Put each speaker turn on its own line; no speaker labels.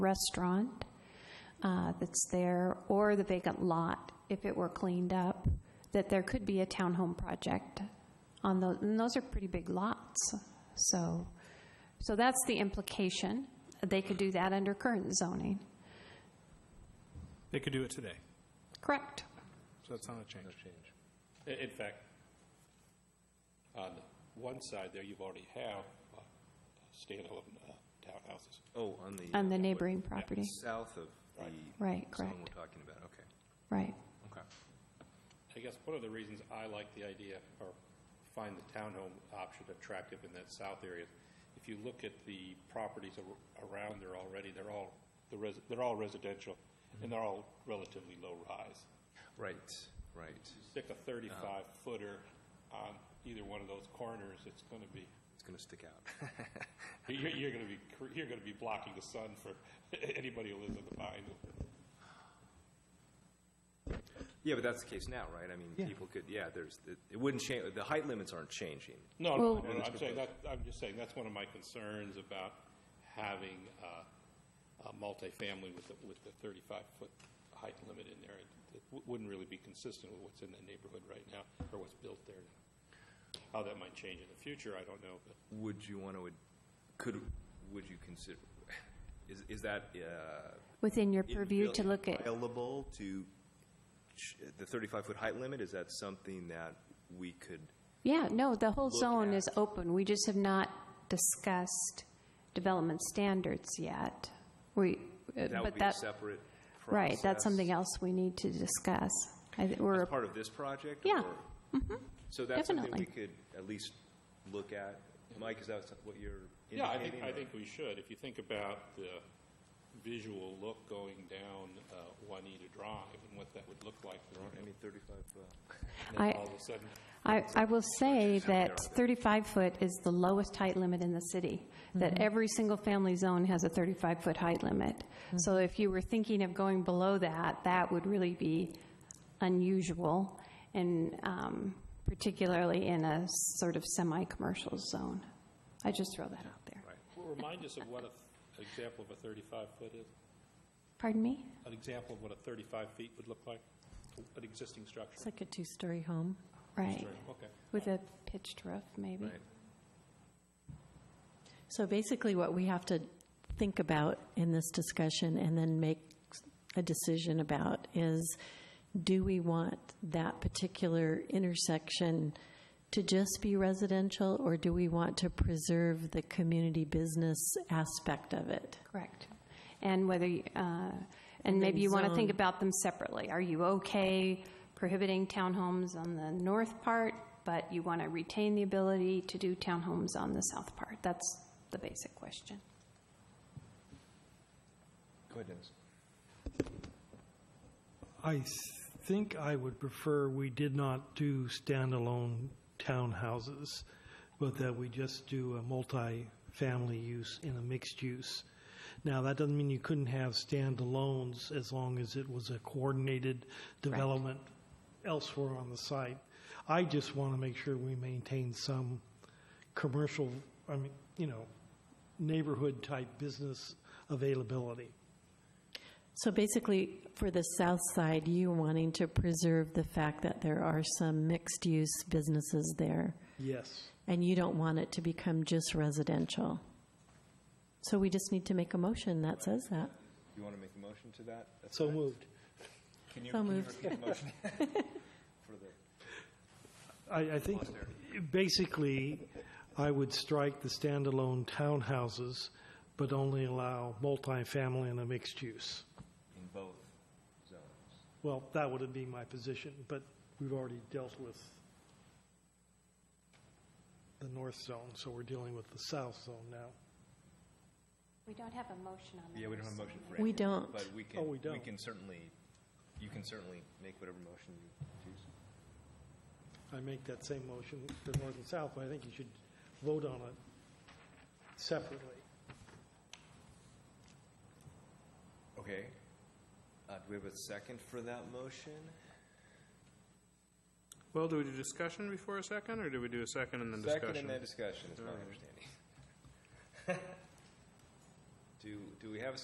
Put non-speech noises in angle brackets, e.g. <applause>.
restaurant uh, that's there, or the vacant lot, if it were cleaned up, that there could be a townhome project on those, and those are pretty big lots. So, so that's the implication. They could do that under current zoning,
They could do it today,
correct?
so that's not a change.
No change. I- In fact, on one side there, you've already have uh, standalone uh, townhouses.
Oh, on the.
On the
uh,
neighboring
yeah,
property.
South of the.
Right,
Zone
correct.
we're talking about, okay,
Right.
okay.
I guess one of the reasons I like the idea or find the townhome option attractive in that south area, if you look at the properties ar- around there already, they're all, the res- they're all residential and they're all relatively low rise.
Right, right.
Stick a thirty-five footer on either one of those corners, it's gonna be,
It's going to stick out. <laughs>
you're, you're gonna be, cr- you're gonna be blocking the sun for <laughs> anybody who lives in the pine.
Yeah, but that's the case now, right? I mean, people could, yeah, there's, it- it wouldn't change, the height limits aren't changing.
No, no,
Well-
no, no, I'm saying that, I'm just saying, that's one of my concerns about having uh, a multifamily with, the- with the thirty-five-foot height limit in there. It- It wou- wouldn't really be consistent with what's in the neighborhood right now, or what's built there now. How that might change in the future, I don't know, but
Would you want to, could, would you consider, is, is that, uh?
Within your purview to look at,
Available to, ch- the thirty-five foot height limit, is that something that we could?
yeah, no, the whole
Look
zone
at-
is open. We just have not discussed development standards yet. We, uh,
That would
but
be a
that,
separate process?
right, that's something else we need to discuss. I think we're
As part of this project?
Yeah.
or-
Mm-hmm.
So that's something we
Definitely.
could at least look at. Mike, is that what you're indicating?
Yeah, I think, I
or-
think we should. If you think about the visual look going down uh, Juanita Drive and what that would look like, there aren't
I
any,
mean, 35, uh,
I-
all of a sudden,
I, I will say that 35-foot is the lowest height limit in the city, that
Mm-hmm.
every single family zone has a 35-foot height limit. So
Mm-hmm.
if you were thinking of going below that, that would really be unusual, and um, particularly in a sort of semi-commercial zone. I just throw that out there.
Well, Remind us of what a- an example of a 35-foot is,
Pardon me?
an example of what a 35 feet would look like, an existing
It's
structure.
like a two-story home.
Right,
Okay.
with a pitched roof, maybe?
right.
So basically, what we have to think about in this discussion and then make a decision about is, do we want that particular intersection to just be residential, or do we want to preserve the community business aspect of it?
Correct. And whether, you- uh, and maybe you want to think
zone.
about them separately. Are you okay prohibiting townhomes on the north part, but you want to retain the ability to do townhomes on the south part? That's the basic question.
Go ahead, Dennis.
I think I would prefer we did not do standalone townhouses, but that we just do a multi-family use in a mixed use. Now, that doesn't mean you couldn't have standalones as long as it was a coordinated development elsewhere on the site. I just want to make sure we maintain some commercial, I mean, you know, neighborhood-type business availability.
So basically, for the south side, you wanting to preserve the fact that there are some mixed-use businesses there.
Yes.
and you don't want it to become just residential. So we just need to make a motion that says that.
You want to make a motion to that?
So
effect?
moved.
Can you-
So
can you
moved.
repeat the motion? For the-
I, I think basically, I would strike the standalone townhouses, but only allow multifamily and a mixed use.
In both zones.
Well, that would be my position, but we've already dealt with the north zone, so we're dealing with the south zone now.
We don't have a motion on that.
Yeah, we don't have a motion for it.
We don't.
But we can.
Oh, we don't.
can certainly, you can certainly make whatever motion you choose.
I make that same motion for north and south, but I think you should vote on it separately.
Okay. Uh, Do we have a second for that motion?
Well, do we do discussion before a second, or do we do a second and then
Second
discussion?
and then discussion, is my understanding. <laughs> Do, do we have a